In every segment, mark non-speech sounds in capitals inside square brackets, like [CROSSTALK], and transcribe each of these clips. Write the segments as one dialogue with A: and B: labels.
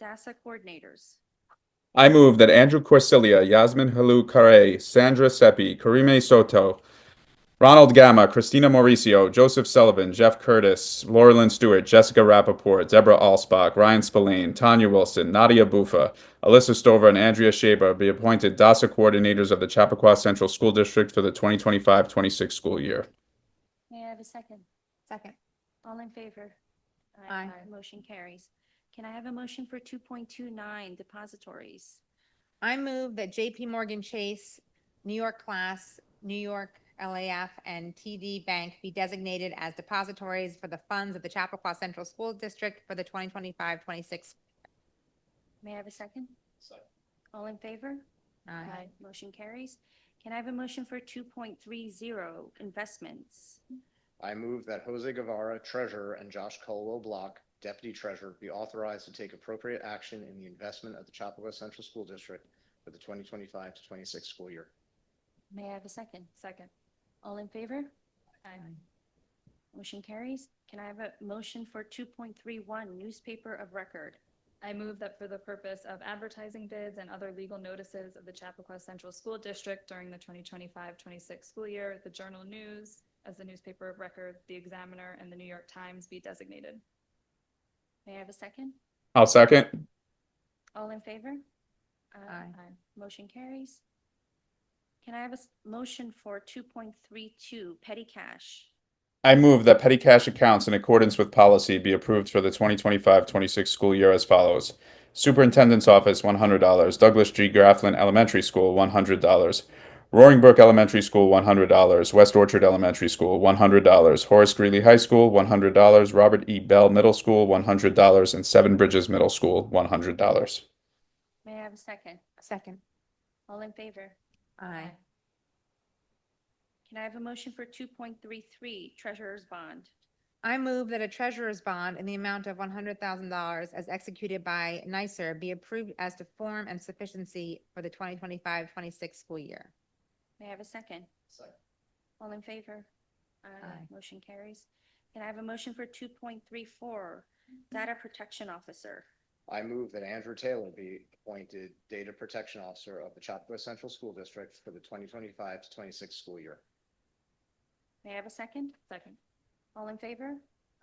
A: DASSA coordinators.
B: I move that Andrew Corsilia, Yasmin Halu Carre, Sandra Seppi, Karime Soto, Ronald Gamma, Christina Mauricio, Joseph Sullivan, Jeff Curtis, Laurelyn Stewart, Jessica Rappaport, Deborah Alsbach, Ryan Spillane, Tanya Wilson, Nadia Bufa, Alyssa Stover, and Andrea Shaber be appointed DASA coordinators of the Chappaqua Central School District for the 2025-26 school year.
A: May I have a second?
C: Second.
A: All in favor?
C: Aye.
A: Motion carries. Can I have a motion for two point two nine depositories?
C: I move that JP Morgan Chase, New York Class, New York LAF, and TD Bank be designated as depositories for the funds of the Chappaqua Central School District for the 2025-26.
A: May I have a second? All in favor?
C: uh,
A: Motion carries. Can I have a motion for two point three zero investments?
D: I move that Jose Guevara, Treasurer, and Josh Colwell Block, Deputy Treasurer, be authorized to take appropriate action in the investment of the Chapakua Central School District for the 2025 to 26 school year.
A: May I have a second? Second. All in favor? Motion carries. Can I have a motion for two point three one newspaper of record?
E: I move that for the purpose of advertising bids and other legal notices of the Chappaqua Central School District during the 2025-26 school year, the Journal News as the newspaper of record, the Examiner, and the New York Times be designated.
A: May I have a second?
B: I'll second.
A: All in favor?
C: Aye.
A: Motion carries. Can I have a s- motion for two point three two petty cash?
B: I move that petty cash accounts in accordance with policy be approved for the 2025-26 school year as follows. Superintendent's Office, $100. Douglas G. Grafflin Elementary School, $100. Roaring Brook Elementary School, $100. West Orchard Elementary School, $100. Horace Greeley High School, $100. Robert E. Bell Middle School, $100. And Seven Bridges Middle School, $100.
A: May I have a second?
C: Second.
A: All in favor?
C: Aye.
A: Can I have a motion for two point three three treasurer's bond?
C: I move that a treasurer's bond in the amount of $100,000 as executed by NICER be approved as to form and sufficiency for the 2025-26 school year.
A: May I have a second? All in favor?
C: Aye.
A: Motion carries. Can I have a motion for two point three four data protection officer?
D: I move that Andrew Taylor be appointed Data Protection Officer of the Chapakua Central School District for the 2025 to 26 school year.
A: May I have a second?
E: Second.
A: All in favor?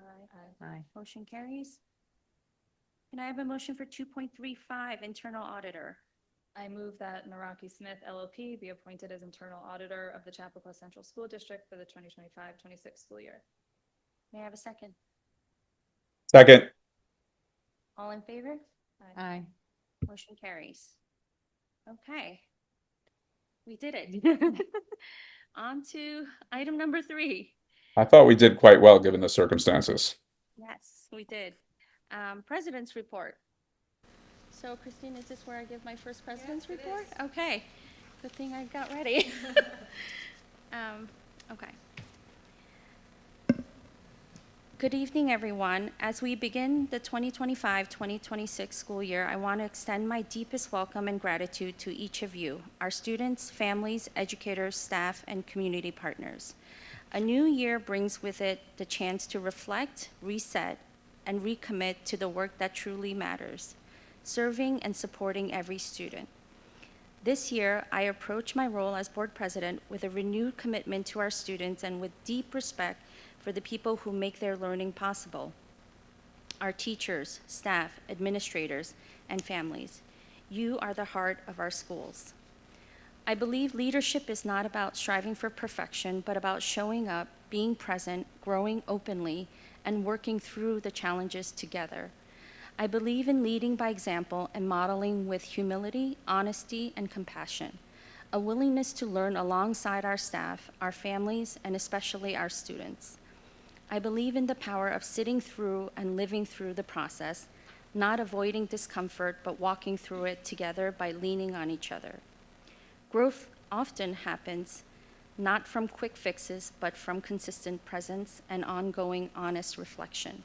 A: Aye.
C: Aye.
A: Motion carries. Can I have a motion for 2.35, internal auditor?
E: I move that Naraki Smith LLP be appointed as internal auditor of the Chappaqua Central School District for the 2025-26 school year.
A: May I have a second?
B: Second.
A: All in favor?
C: Aye.
A: Motion carries. Okay. We did [LAUGHS] it. On to item number three.
B: I thought we did quite well given the circumstances.
A: Yes, we did. Um, President's report. So Christine, is this where I give my first president's report? Okay, good thing I got [LAUGHS] ready. Um, okay. Good evening, everyone. As we begin the 2025-2026 school year, I want to extend my deepest welcome and gratitude to each of you, our students, families, educators, staff, and community partners. A new year brings with it the chance to reflect, reset, and recommit to the work that truly matters, serving and supporting every student. This year, I approach my role as board president with a renewed commitment to our students and with deep respect for the people who make their learning possible our teachers, staff, administrators, and families. You are the heart of our schools. I believe leadership is not about striving for perfection, but about showing up, being present, growing openly, and working through the challenges together. I believe in leading by example and modeling with humility, honesty, and compassion, a willingness to learn alongside our staff, our families, and especially our students. I believe in the power of sitting through and living through the process, not avoiding discomfort, but walking through it together by leaning on each other. Growth often happens not from quick fixes, but from consistent presence and ongoing honest reflection.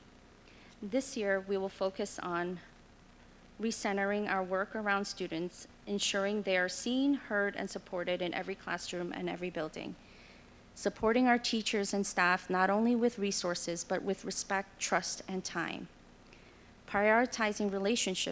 A: This year, we will focus on recentering our work around students, ensuring they are seen, heard, and supported in every classroom and every building, supporting our teachers and staff not only with resources, but with respect, trust, and time, prioritizing relationships.